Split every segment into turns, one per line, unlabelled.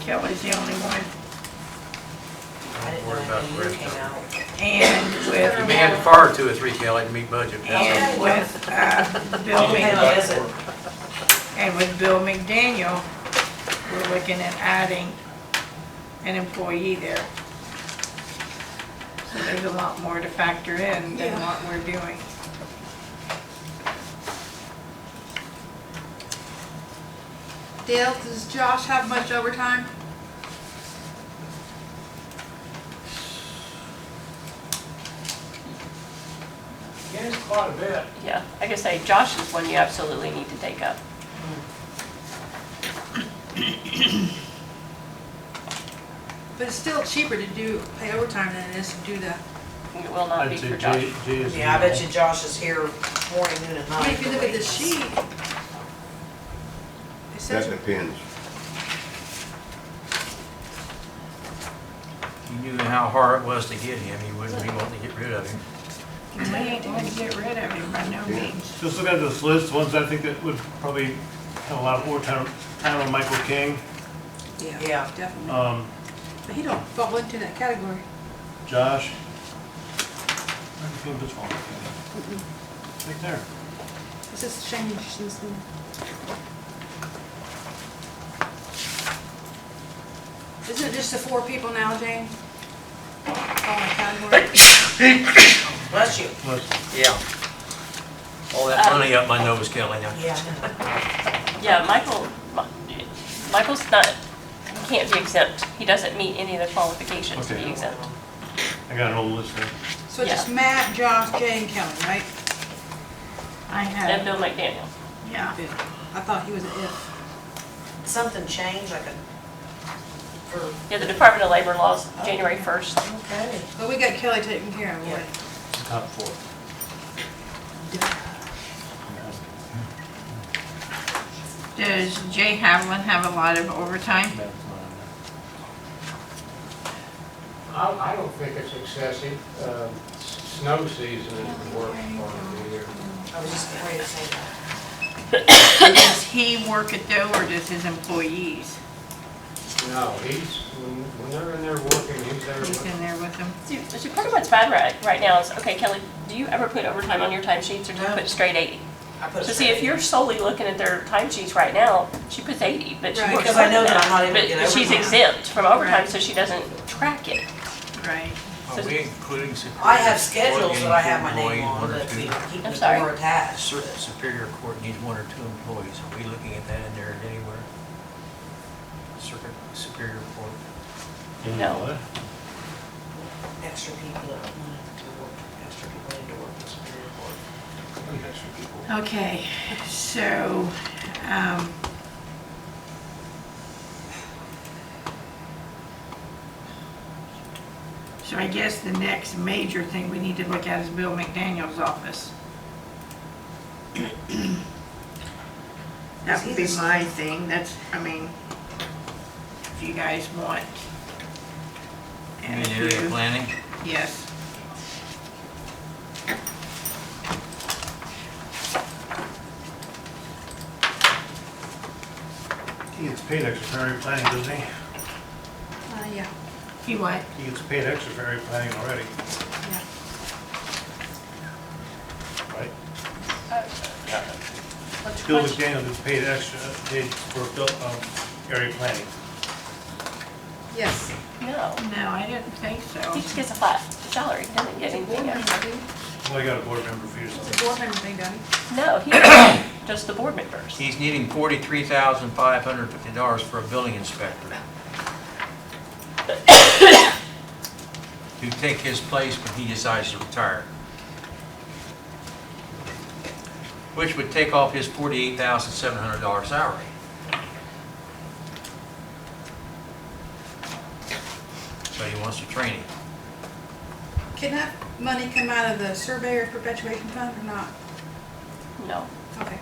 Kelly's the only one.
I didn't know
Worry about the
that you
rest
came
of it.
out.
And
You
with,
may have to fire two or three, Kelly, to meet budget. That's
and with, uh, Bill
Who the
Mc,
hell is it?
and with Bill McDaniel, we're looking at adding an employee there. So there's a lot more to factor in than what we're doing.
Dale, does Josh have much overtime?
Yes, quite a bit.
Yeah, like I say, Josh is one you absolutely need to take up.
But it's still cheaper to do, pay overtime than it is to do the,
It will not be
And to
for Josh.
G- G is
Yeah, I bet
normal.
you Josh is here morning, noon, and
I
night.
mean, if you look at this sheet. It
That
says,
depends.
You knew how hard it was to get him, you wouldn't be wanting to get rid of him.
We ain't gonna get rid of him by no means.
Just looking at this list, ones I think that would probably have a lot of overtime, time on Michael King,
Yeah.
yeah, definitely.
um,
But he don't fall into that category.
Josh. Michael King does fall. Right there.
It's just changed since then. Isn't it just the four people now, Jane? Fall in category?
Bless you.
Listen,
Yeah. All that money up my nose, Kelly, now.
Yeah.
Yeah, Michael, Mi- Michael's not, he can't be exempt. He doesn't meet any of the qualifications to be
Okay.
exempt.
I got an old list there.
So it's just Matt, Josh, Jane, Kelly, right?
I
And
have,
Bill McDaniel.
yeah.
I thought he was an if.
Something changed, like a, for.
Yeah, the Department of Labor laws, January 1st.
Okay.
But we got Kelly taken care of, right?
Top four.
Does Jay Hamlin have a lot of overtime?
That's not on there.
I, I don't think it's excessive. Um, s- Snow season is the worst part of the year.
I was just getting ready to say that.
Does he work it though, or does his employees?
No, he's, when when they're in there working, he's there.
He's
working.
in there with them?
See, see, part of what's bad right, right now is, okay, Kelly, do you ever put overtime on your timesheets or do you
No.
put straight 80?
I put a
So see, if
straight-
you're solely looking at their timesheets right now, she puts 80, but she
Right.
works
Because I
more
know
than
that I'm not able to
But-
get
But she's
overtime.
exempt from overtime,
Right.
so she doesn't track it.
Right.
Are we including Superior?
I have schedules that I have my
Employee,
name on,
one or
but
two?
we keep
I'm
the
sorry.
door attached.
Cer- Superior Court needs one or two employees. Are we looking at that in there anywhere? Circuit, Superior Court.
You
No.
know what?
Extra people that wanted to work, extra people need to work this period of work.
Okay, so, um, so I guess the next major thing we need to look at is Bill McDaniel's office. That would be my thing, that's, I mean, if you guys want. And if
Area
you-
planning?
Yes.
He gets paid extra for area planning, doesn't he?
Uh, yeah,
He what?
He gets paid extra for area planning already,
yeah.
right?
What's-
Bill
what's-
McDaniel gets paid extra, paid for, bill- um, area planning.
Yes.
No,
No, I didn't think so.
he just gets a flat salary, he doesn't get anything extra.
Well, I got a board member fee or
It's
something.
a board member thing, Donnie.
No, he doesn't, just the board members.
He's needing forty-three thousand five hundred fifty dollars for a building inspector. To take his place when he decides to retire. Which would take off his forty-eight thousand seven hundred dollar salary. So he wants to train him.
Can that money come out of the surveyor perpetuation fund or not?
No,
Okay.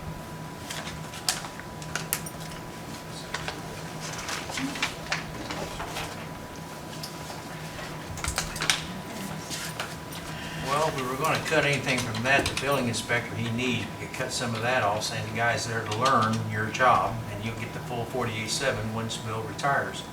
Well, if we were gonna cut anything from that, the building inspector he needs, we could cut some of that off, saying the guy's there to learn your job, and you'll get the full forty-eight-seven once Bill retires.